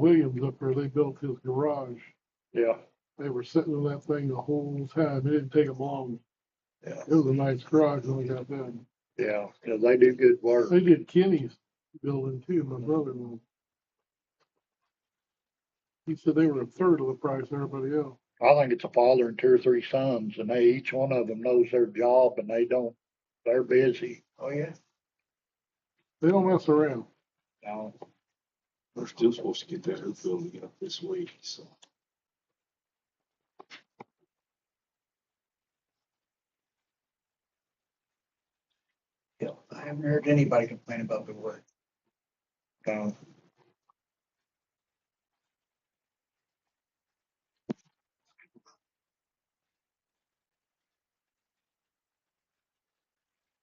Williams up there, they built his garage. Yeah, They were sitting on that thing the whole time. It didn't take them long. yeah, It was a nice garage when we got done. yeah, 'cause they do good work. They did Kenny's building too, my brother-in-law. He said they were a third of the price of everybody else. I think it's a father and two or three sons, and they, each one of them knows their job and they don't, they're busy. Oh, yeah. They don't mess around. Now, We're still supposed to get that hoop building up this week, so. Yeah, I haven't heard anybody complain about the wood. now,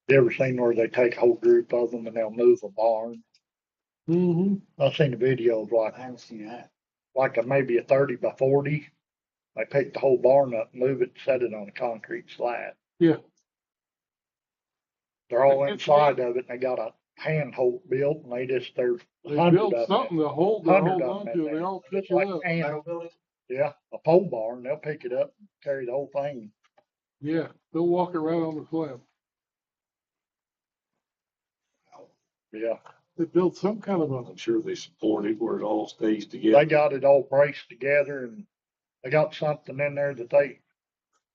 You ever seen where they take a whole group of them and they'll move a barn? Mm-hmm. I've seen the videos like, I haven't seen that. like a, maybe a thirty by forty. They pick the whole barn up, move it, set it on a concrete slab. Yeah. They're all inside of it and they got a handhold built and they just, there's They a hundred built of them. something to hold, to Hundred hold of on them to, in and they there. all pick Just it like up. hand, Building? yeah, a pole barn, they'll pick it up, carry the whole thing. Yeah, they'll walk it right on the slab. Yeah, They built some kind of a, I'm sure they support it where it all stays together. they got it all braced together and they got something in there that they,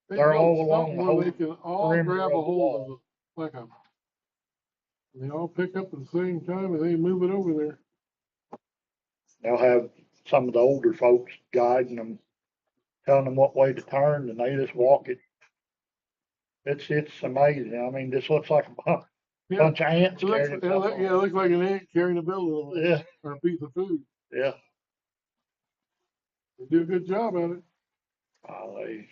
they They're all built along something the where they can all perimeter grab of a the hold of it, like a. They all pick up at the same time and they move it over there. they'll have some of the older folks guiding them, telling them what way to turn and they just walk it. It's, it's amazing. I mean, this looks like a bu- Yeah, bunch of ants it looks, carrying it stuff look, yeah, it on. looks like an ant carrying a building Yeah, or a piece of food. yeah. They do a good job at it. Golly.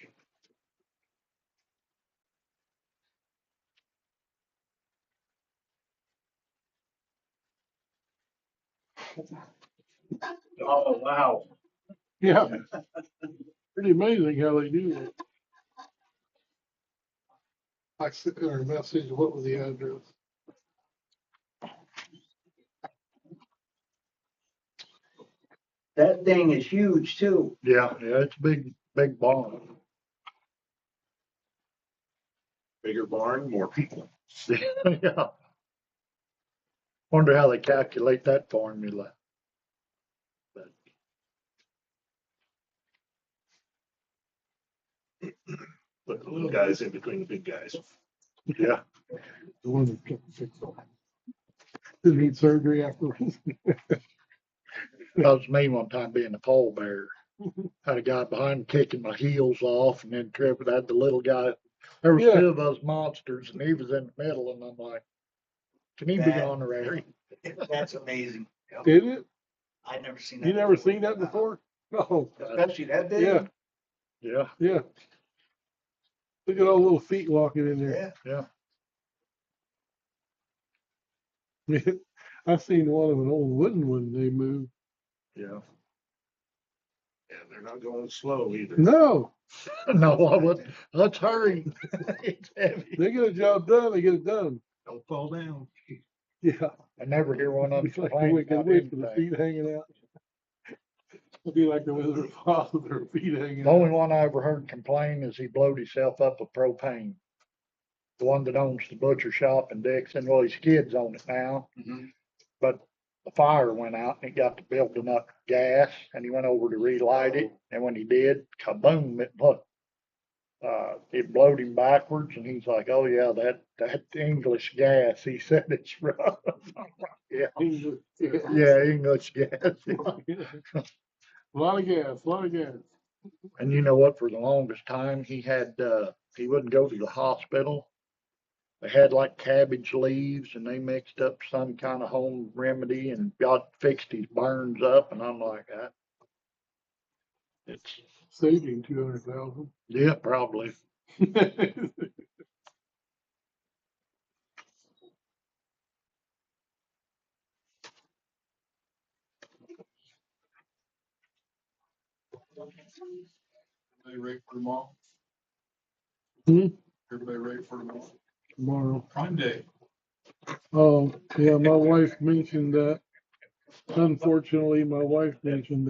Oh, wow. Yeah. Pretty amazing how they do that. I sent her a message, what was the address? That thing is huge too. Yeah, yeah, it's a big, big barn. Bigger barn, more people. Yeah. Wonder how they calculate that formula. But Put the little guys in between the big guys. Yeah, The one that kept fixed on. Didn't need surgery afterwards. that was me one time being a pallbearer. Mm-hmm. Had a guy behind kicking my heels off and then tripping. I had the little guy. There was Yeah. two of those monsters and he was in the middle and I'm like, can he be That- honorary? That's amazing. Did it? I've never seen that. You never before. seen that before? Oh. No, Especially that big? yeah, Yeah, yeah. Look at all the little feet walking in there. Yeah. I seen one of an old wooden one they moved. yeah. Yeah, they're not going slow either. No, No, I wouldn't. Let's hurry. It's heavy. they get a job done, they get it done. Don't fall down. Yeah. I never hear one of them It's like the complain wicked about witch with the anything. feet hanging out. It'd be like the Wizard of Oz with her feet hanging The only out. one I ever heard complain is he blowed himself up with propane. The one that owns the butcher shop in Dixon, well, his kids own it now, Mhm. but the fire went out and he got to building up gas and he went over to relight it. And when he did, kaboom, it blew. Uh, it blowed him backwards and he's like, oh yeah, that, that English gas, he said it's rough. Yeah. Yeah, English gas. A lot of gas, a lot of gas. And you know what? For the longest time, he had uh, he wouldn't go to the hospital. They had like cabbage leaves, and they mixed up some kind of home remedy, and God fixed his burns up. And I'm like, I, it's Saving two hundred thousand. yeah, probably. Everybody ready for tomorrow? Hmm? Everybody ready for tomorrow? Tomorrow. Prime Day. Oh, yeah, my wife mentioned that. Unfortunately, my wife mentioned